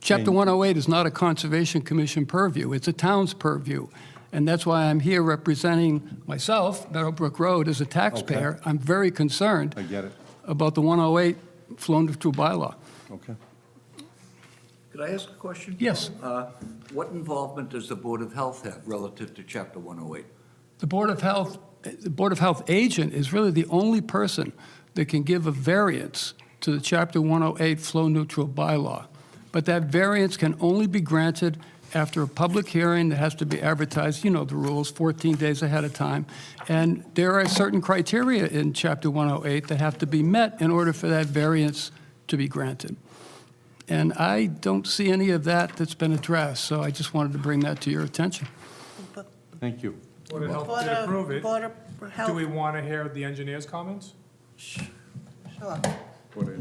Chapter 108 is not a Conservation Commission purview, it's a town's purview. And that's why I'm here representing myself, Meadowbrook Road, as a taxpayer. I'm very concerned I get it. about the 108 flown through bylaw. Okay. Could I ask a question? Yes. Uh, What involvement does the Board of Health have relative to Chapter 108? The Board of Health, the Board of Health agent is really the only person that can give a variance to the Chapter 108 flow neutral bylaw. But that variance can only be granted after a public hearing that has to be advertised, you know the rules, 14 days ahead of time. And there are certain criteria in Chapter 108 that have to be met in order for that variance to be granted. And I don't see any of that that's been addressed, so I just wanted to bring that to your attention. Thank you. Board of Health Board did approve of, it. Board of Do we Health, want to hear the engineer's comments? sure. The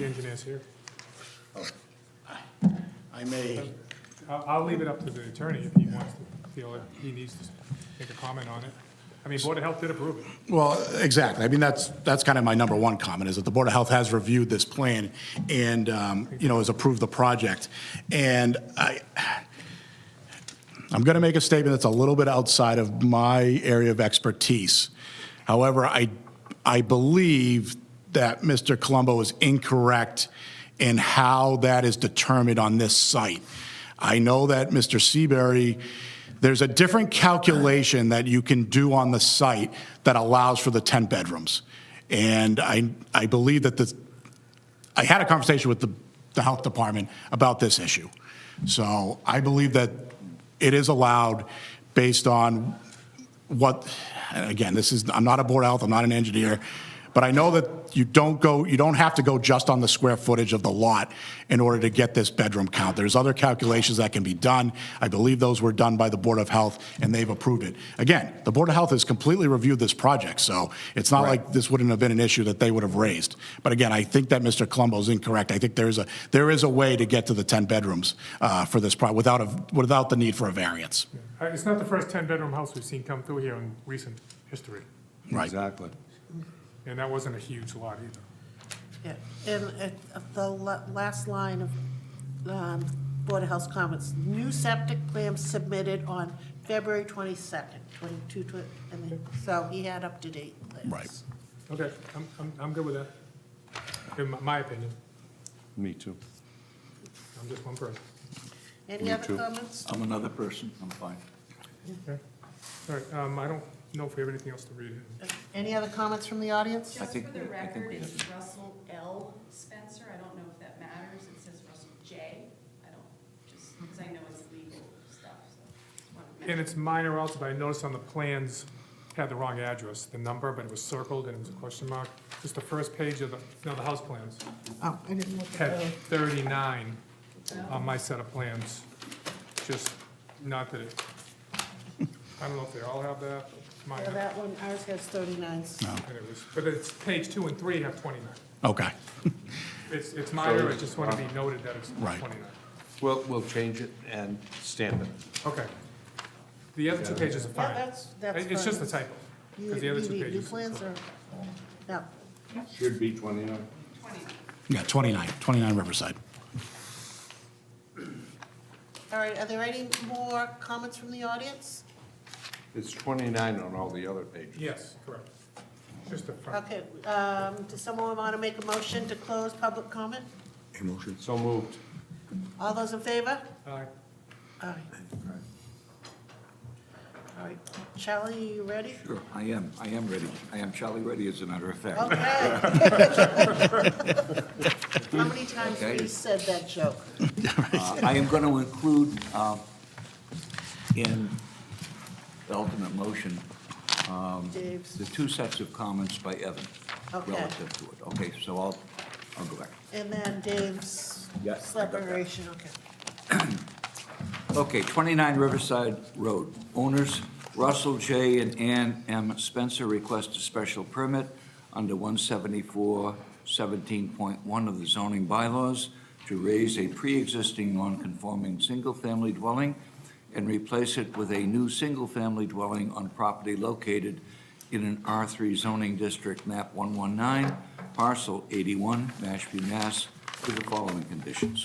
engineer's here. I may, I'll, I'll leave it up to the attorney if he wants to feel like he needs to make a comment on it. I mean, Board of Health did approve it. well, exactly. I mean, that's, that's kind of my number one comment, is that the Board of Health has reviewed this plan and, um, you know, has approved the project. And I, I'm going to make a statement that's a little bit outside of my area of expertise. However, I, I believe that Mr. Colombo is incorrect in how that is determined on this site. I know that Mr. Seabury, there's a different calculation that you can do on the site that allows for the 10 bedrooms. And I, I believe that the, I had a conversation with the, the health department about this issue. So I believe that it is allowed based on what, and again, this is, I'm not a board of health, I'm not an engineer, but I know that you don't go, you don't have to go just on the square footage of the lot in order to get this bedroom count. There's other calculations that can be done. I believe those were done by the Board of Health, and they've approved it. Again, the Board of Health has completely reviewed this project, so it's not like this wouldn't have been an issue that they would have raised. But again, I think that Mr. Colombo's incorrect. I think there is a, there is a way to get to the 10 bedrooms uh, for this project without, a- without the need for a variance. Uh, It's not the first 10-bedroom house we've seen come through here in recent history, Right. Exactly. and that wasn't a huge lot either. Yeah, And uh, of the la- last line of um, Board of Health's comments, new septic plan submitted on February 22nd, 22, tw- and then- so he had up-to-date plans. Right. Okay, I'm, I'm, I'm good with that, in my- my opinion. Me too. I'm just one person. Any other comments? I'm another person, I'm fine. Okay, all right, um, I don't know if we have anything else to read. Any other comments from the audience? I Just think for the we- I think record, we it's Russell L. Spencer, I don't know if that matters, it says Russell J. I don't, just, because I know it's legal stuff, so. just wanted to And mention. it's minor also, but I noticed on the plans had the wrong address, the number, but it was circled and it was a question mark. Just the first page of the, no, the house plans Oh, I didn't look at had those. 39 on my set of plans. Just, not that it, I don't know if they all have that, but mine, Yeah, had- That one, ours has 39. and it was, but it's, page two and three have 29. Okay. It's, it's minor, I just want to be noted that it's Right. 29. We'll, we'll change it and stamp it. Okay. The other two pages are fine. Yeah, that's, that's It's just a fine. typo, You- because the other you two need New pages. plans or, no, Should be 29. Yeah, 29, 29 Riverside. all right, are there any more comments from the audience? It's 29 on all the other pages. Yes, correct. Just the front. Okay, um, does someone want to make a motion to close public comment? So moved. All those in favor? Aye. All right. All right, Charlie, you ready? Sure, I am, I am ready. I am Charlie ready, as a matter of fact. Okay. How many times have you said that joke? Uh, I am going to include uh, in the ultimate motion, Um, Dave's. the two sets of comments by Evan Okay. relative to it. Okay, so I'll, I'll go back. And then Dave's Yes, I got that. separation, okay. Okay, 29 Riverside Road. Owners Russell J. and Ann M. Spencer request a special permit under 174-17.1 of the zoning bylaws to raise a pre-existing non-conforming single-family dwelling and replace it with a new single-family dwelling on property located in an R3 zoning district, map 119, parcel 81, Mashpee, Mass, with the following conditions.